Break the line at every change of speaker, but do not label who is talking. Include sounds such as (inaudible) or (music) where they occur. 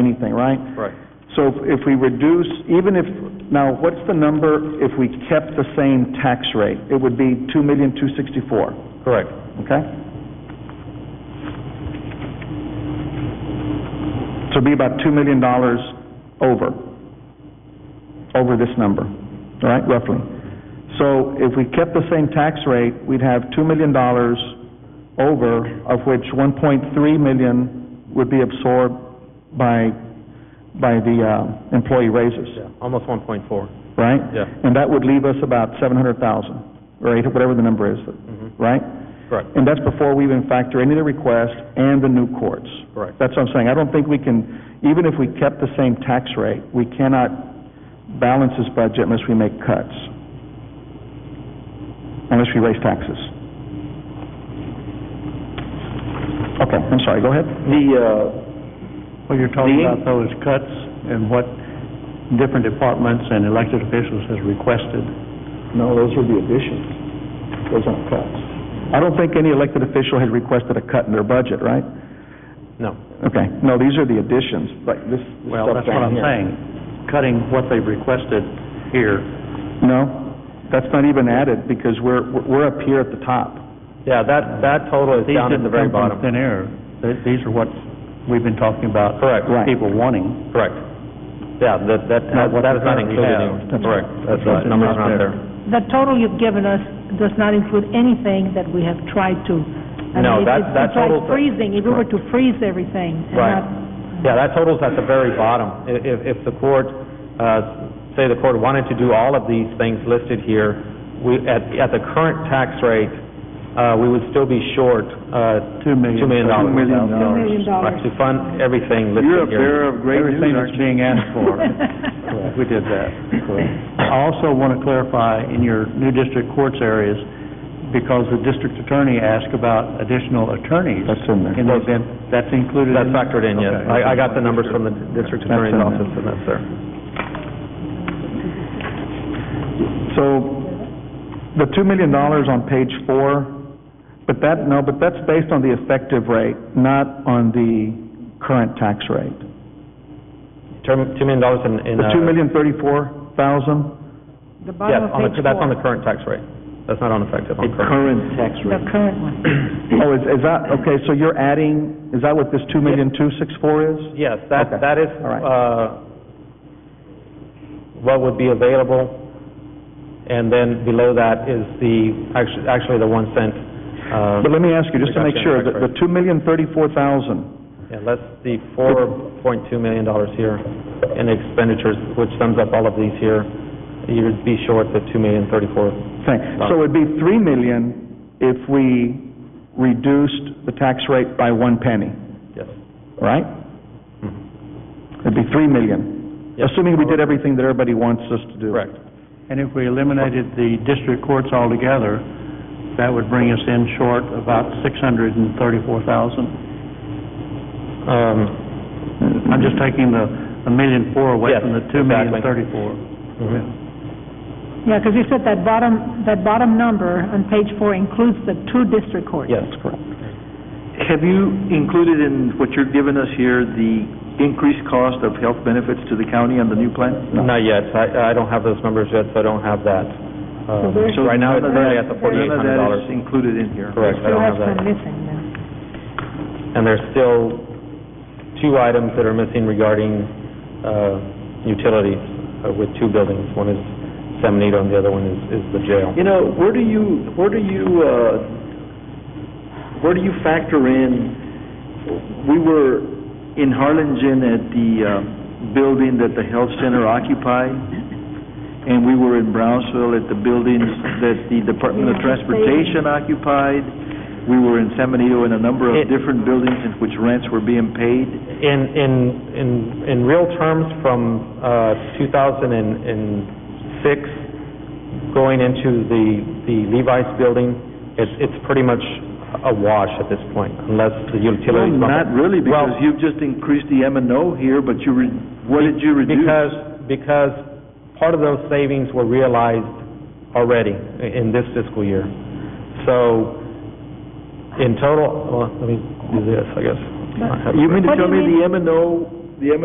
anything, right?
Right.
So if- if we reduce, even if, now, what's the number if we kept the same tax rate? It would be two million, two sixty-four,
Correct.
okay? So it'd be about two million dollars over, over this number, all right, roughly. So if we kept the same tax rate, we'd have two million dollars over, of which one point three million would be absorbed by, by the, uh, employee raises
Yeah, almost one point four.
right?
Yeah.
And that would leave us about seven hundred thousand, or eight, whatever the number is,
Mm-hmm.
right?
Correct.
And that's before we even factor any of the requests and the new courts.
Correct.
That's what I'm saying, I don't think we can, even if we kept the same tax rate, we cannot balance this budget unless we make cuts, unless we raise taxes. Okay, I'm sorry, go ahead.
The, uh,
Well, you're talking
The-
about those cuts and what different departments and elected officials has requested.
no, those are the additions. Those aren't cuts.
I don't think any elected official has requested a cut in their budget, right?
No.
Okay, no, these are the additions, like this this
Well,
stuff
that's what
down
I'm
here.
saying, cutting what they've requested here.
No, that's not even added, because we're, we're up here at the top.
Yeah, that, that total is
These
down at the
didn't
very
come from
bottom.
Thin air. Th- These are what we've been talking about.
Correct.
Right.
People wanting.
Correct. Yeah, that, that,
what
that is not
we
included
have.
anywhere. Correct. That's
what's
right, number's
not
not
there.
there.
The total you've given us does not include anything that we have tried to... I mean,
No,
it-
that-
it's-
that total-
It's like freezing, if we were to freeze everything and
Right.
not...
Yeah, that total's at the very bottom. I- If, if the court, uh, say the court wanted to do all of these things listed here, we, at, at the current tax rate, uh, we would still be short, uh...
Two million.
Two million dollars.
Two million
$2 million.
Right, To fund everything listed here.
You're a bearer of great news,
Everything that's
aren't you?
being asked
(laughs)
(laughs)
for. We did that. I also want to clarify in your new district courts areas, because the district attorney asked about additional attorneys.
That's in there.
And they've been, that's included
That's
in?
factored in, yes.
Okay.
I, I got the numbers from the district attorney's
That's in
office, and that's there.
So, the two million dollars on page four, but that, no, but that's based on the effective rate, not on the current tax rate.
Term- Two million dollars in, in...
The
uh,
two million thirty-four thousand,
The
Yeah,
bottom of
on
page
the, that's on the
four,
current tax rate. That's not on effective, on current.
Current tax
the
rate.
current one.
oh, is, is that, okay, so you're adding, is that what this two million two six four is?
Yes, that,
Okay.
that is,
All right.
uh, what would be available, and then below that is the, actually, actually the one cent, uh,
But let me ask you, just to make
Reduction in
sure, the, the
tax
two million thirty-four thousand,
yeah, that's the four point two million dollars here in expenditures, which sums up all of these here. You'd be short the two million thirty-four.
thing, so it'd be three million if we reduced the tax rate by one penny.
Yes,
right? It'd be three million,
Yes.
assuming we did everything that everybody wants us to do.
correct.
And if we eliminated the district courts altogether, that would bring us in short about six hundred and thirty-four thousand.
Um,
I'm just taking the, a million four away
Yes,
from the two million
exactly.
thirty-four.
Mm-hmm.
Yeah, because you said that bottom, that bottom number on page four includes the two district courts.
Yes.
Have you included in what you're giving us here, the increased cost of health benefits to the county on the new plan?
Not yet. I, I don't have those numbers yet, so I don't have that. Um,
there's-
So right now, it's
None of
currently
that-
at the forty-eight hundred
None of
dollars.
that is included in here.
Correct, I
Still
don't
have
have
some
that.
missing there.
And there's still two items that are missing regarding, uh, utilities uh, with two buildings. One is San Benito and the other one is, is the jail.
You know, where do you, where do you, uh, where do you factor in, we were in Harlingen at the uh, building that the health center occupied, and we were in Brownsville at the buildings that the Department of
Yeah.
Transportation occupied, we were in San Benito in a number of
It-
different buildings in which rents were being paid.
In, in, in, in real terms, from, uh, two thousand and six, going into the, the Levi's building, it's, it's pretty much a wash at this point, unless the utilities. bump it.
Not really,
Well,
because you've just increased the M and O here, but you, re- what did you reduce?
Because, because part of those savings were realized already i- in this fiscal year. So, in total, well, let me do this, I guess.
You mean to
What do
tell
you
me
mean?
the M and O